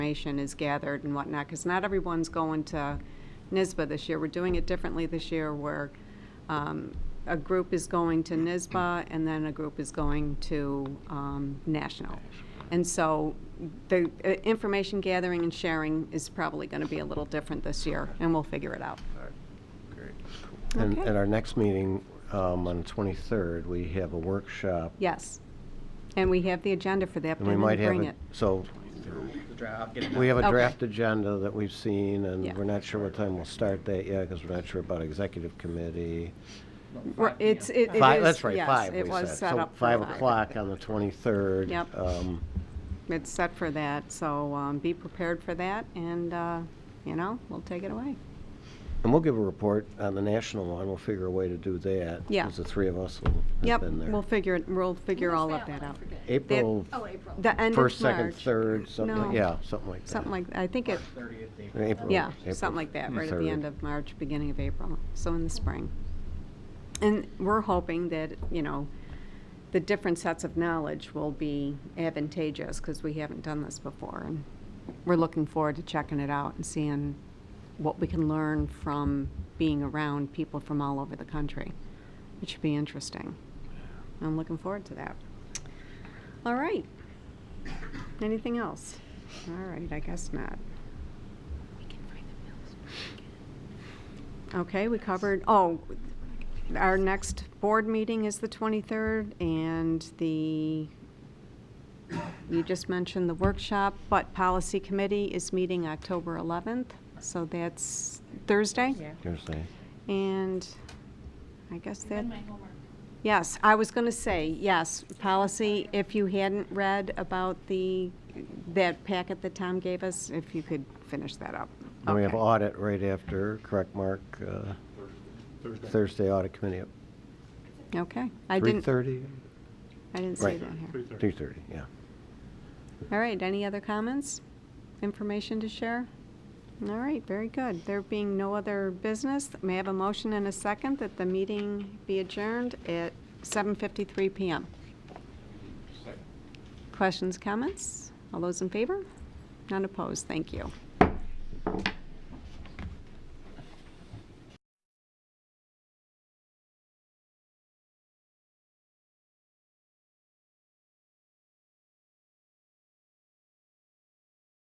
information is gathered and whatnot, because not everyone's going to NISBA this year. We're doing it differently this year, where um, a group is going to NISBA, and then a group is going to um, National. And so the uh, information gathering and sharing is probably going to be a little different this year, and we'll figure it out. And Okay. at our next meeting um, on the 23rd, we have a workshop. Yes. And we have the agenda for that, but And I we might didn't have, bring a it. so The dra- I'll get it we have a Okay. draft agenda that we've seen, Yeah. and we're not sure what time we'll start that yet, because we're not sure about executive committee. now. We're- It's, it it is, Five, that's right, yes, five, It we was said. set So up for five o'clock on the 23rd. Yep. um, It's set for that, so um, be prepared for that, and, uh, you know, we'll take it away. And we'll give a report on the national one. We'll figure a way to do that. Yeah. Because the three of us will have Yep, been there. we'll figure, it. we'll figure Where's all of one? that I out. forget. April, Oh, April. The end of March. first, second, third, something, No. like- yeah, something like that. Something like, I think it, Thirtieth April. April. yeah, April something like that, right at the 3rd. end of March, beginning of April, so in the spring. And we're hoping that, you know, the different sets of knowledge will be advantageous, because we haven't done this before, and we're looking forward to checking it out and seeing what we can learn from being around people from all over the country. It should be interesting. I'm looking forward to that. All right. Anything else? All right, I guess not. Okay, we covered, oh, our next board meeting is the 23rd, and the, you just mentioned the workshop, but Policy Committee is meeting October 11th, so that's Thursday? Yeah. Thursday. And I guess that. Done my homework. Yes, I was going to say, yes, policy, if you hadn't read about the, that packet that Tom gave us, if you could finish that up. And we have Okay. audit right after, correct, Mark? Uh, Thursday audit committee. Okay, I didn't, 3:30? I didn't see Right. that here. 3:30, yeah. All right, any other comments, information to share? All right, very good. There being no other business, may I have a motion and a second that the meeting be adjourned at 7:53 PM? Questions, comments? All those in favor? None opposed, thank you.